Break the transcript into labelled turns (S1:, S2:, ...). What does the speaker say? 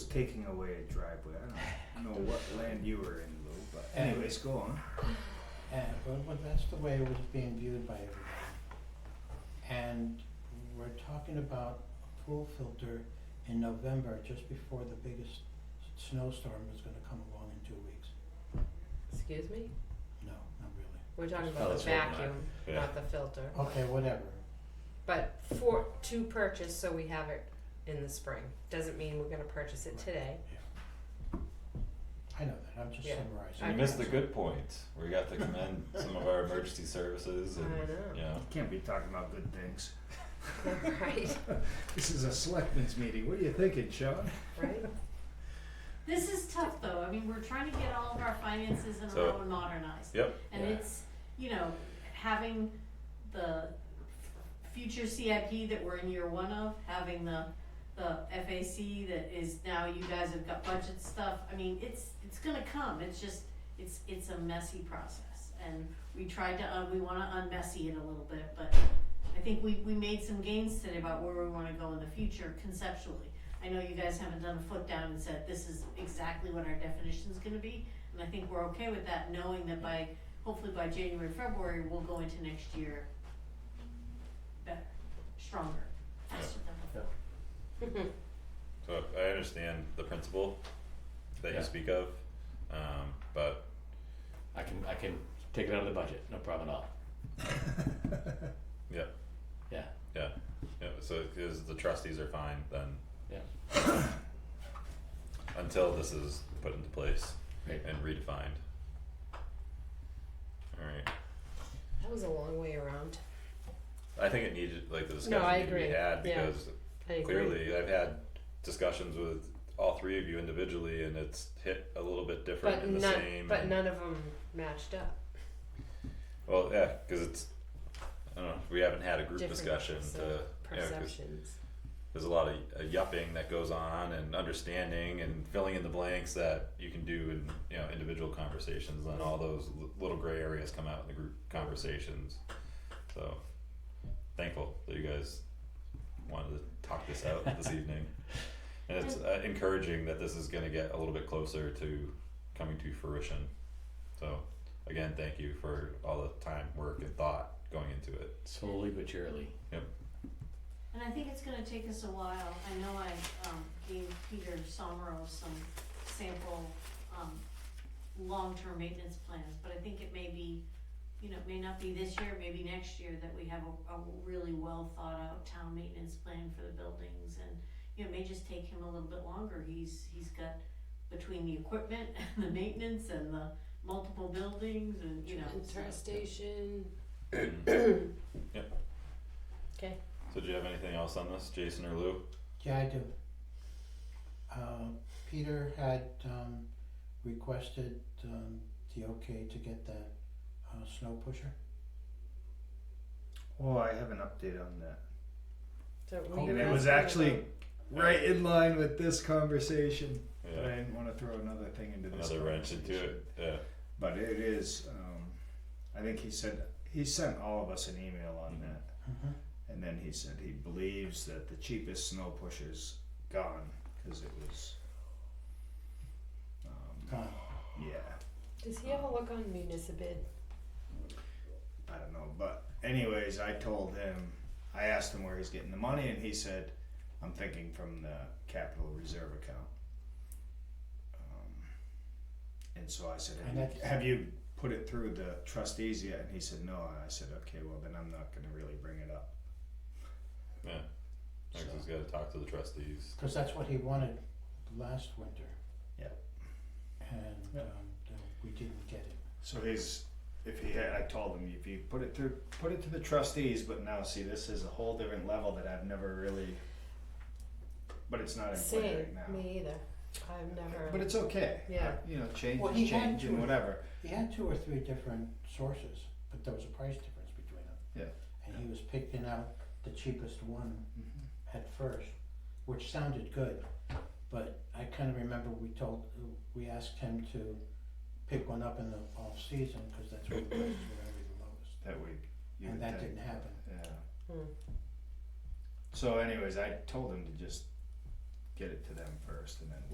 S1: taking away a driveway. I don't know what land you were in, Lou, but anyways, go on.
S2: And, well, well, that's the way it was being viewed by everybody. And we're talking about a pool filter in November, just before the biggest s- snowstorm is gonna come along in two weeks.
S3: Excuse me?
S2: No, not really.
S3: We're talking
S4: Oh,
S3: about the
S4: that's what not-
S3: vacuum,
S4: yeah.
S3: not the filter.
S2: Okay, whatever.
S3: But for, to purchase, so we have it in the spring. Doesn't mean we're gonna purchase it today.
S2: I know that, I'm just
S3: Yeah.
S2: summarizing.
S4: So you
S3: I
S4: missed the good points. We got to commend some of our emergency services and
S3: I know.
S4: you know.
S1: You can't be talking about good things.
S3: Right,
S1: This is a selectmen's meeting. What are you thinking, Sean?
S3: right?
S5: This is tough though. I mean, we're trying to get all of our finances in
S4: So-
S5: a row and modernized.
S4: Yep.
S5: And
S2: Yeah.
S5: it's, you know, having the future CIP that we're in year one of, having the, the FAC that is now, you guys have got budget stuff. I mean, it's, it's gonna come. It's just, it's, it's a messy process. And we tried to, uh, we wanna unmessy it a little bit, but I think we, we made some gains today about where we wanna go in the future conceptually. I know you guys haven't done a foot down and said, this is exactly what our definition's gonna be, and I think we're okay with that, knowing that by, hopefully by January, February, we'll go into next year better, stronger, faster than before.
S4: So I understand the principle that
S6: Yeah.
S4: you speak of, um, but
S6: I can I can take it out of the budget, no problem at all.
S4: yeah,
S6: Yeah,
S4: yeah, yeah. So because the trustees are fine then
S6: yeah,
S4: until this is put into place
S6: Right.
S4: and redefined. All right.
S3: That was a long way around.
S4: I think it needed like the discussion
S3: I
S4: needed to be
S3: agree.
S4: had
S3: Yeah.
S4: because
S3: I agree.
S4: clearly I've had discussions with all three of you individually and it's hit a little bit different
S3: But
S4: and the
S3: none,
S4: same.
S3: but
S4: and-
S3: none of them matched up.
S4: Well, yeah, because it's I don't know. We haven't had a group
S3: Different
S4: discussion
S3: perce-
S4: to yeah, 'cause
S3: Perceptions.
S4: there's a lot of uh, yupping that goes on and understanding and filling in the blanks that you can do in you know individual conversations. And all those l- little gray areas come out in the group conversations. So thankful that you guys wanted to talk this out this evening. And it's uh, encouraging that this is going to get a little bit closer to coming to fruition. So, again, thank you for all the time, work, and thought going into it.
S6: slowly but surely.
S5: And I think it's gonna take us a while, I know I, um, gave Peter Somro some sample, um, long-term maintenance plans, but I think it may be, you know, it may not be this year, maybe next year, that we have a, a really well-thought-out town maintenance plan for the buildings, and, you know, it may just take him a little bit longer, he's, he's got, between the equipment and the maintenance and the multiple buildings and, you know, so-
S3: Interestation.
S4: Yep.
S3: Okay.
S4: So, do you have anything else on this, Jason or Lou?
S2: Yeah, I do. Uh, Peter had, um, requested, um, the okay to get that, uh, snow pusher.
S1: Oh, I have an update on that.
S3: So we
S2: Oh,
S1: And
S3: were
S1: it was
S3: asking
S1: actually
S3: about-
S1: right in line with this conversation.
S4: Yeah.
S1: But I didn't want to throw another thing into this.
S4: another wrench into
S1: conversation.
S4: it. Yeah.
S1: But it is, um, I think he said, he sent all of us an email on
S4: Mhm.
S1: that.
S2: Mm-hmm.
S1: And then he said he believes that the cheapest snow pusher's gone because it was. Um,
S2: Gone.
S1: yeah,
S3: Does he have a look on municipal?
S1: I don't know. But, anyways, I told him, I asked him where he's getting the money, and he said, I'm thinking from the capital reserve account. Um, and so I said,
S2: And
S1: have you,
S2: that's-
S1: have you put it through the trustees yet? And he said, No. And I said, Okay, well, then I'm not going to really bring it up.
S4: Yeah.
S1: So,
S4: Next, he's got to talk to the trustees.
S2: Cause that's what he wanted last winter.
S1: Yep.
S2: And,
S1: Yep.
S2: um, the- we didn't get it.
S1: so he's, if he had, I told him, if you put it through, put it to the trustees, but now see, this is a whole different level that I've never really, but it's not in play
S3: Same,
S1: right now.
S3: me either. I've never.
S1: But it's okay. Uh,
S3: Yeah.
S1: You know, change
S2: Well,
S1: is
S2: he had
S1: change and
S2: to-
S1: whatever.
S2: He had two or three different sources, but there was a price difference between them.
S1: Yeah.
S2: And he was picking out the cheapest one at first, which sounded good, but I kinda remember we told, we asked him to pick one up in the off season, cause that's when the prices were gonna be the lowest.
S1: That week. you
S2: And
S1: would
S2: that
S1: think.
S2: didn't happen.
S1: Yeah.
S3: Hmm.
S1: So anyways, I told him to just get it to them first and then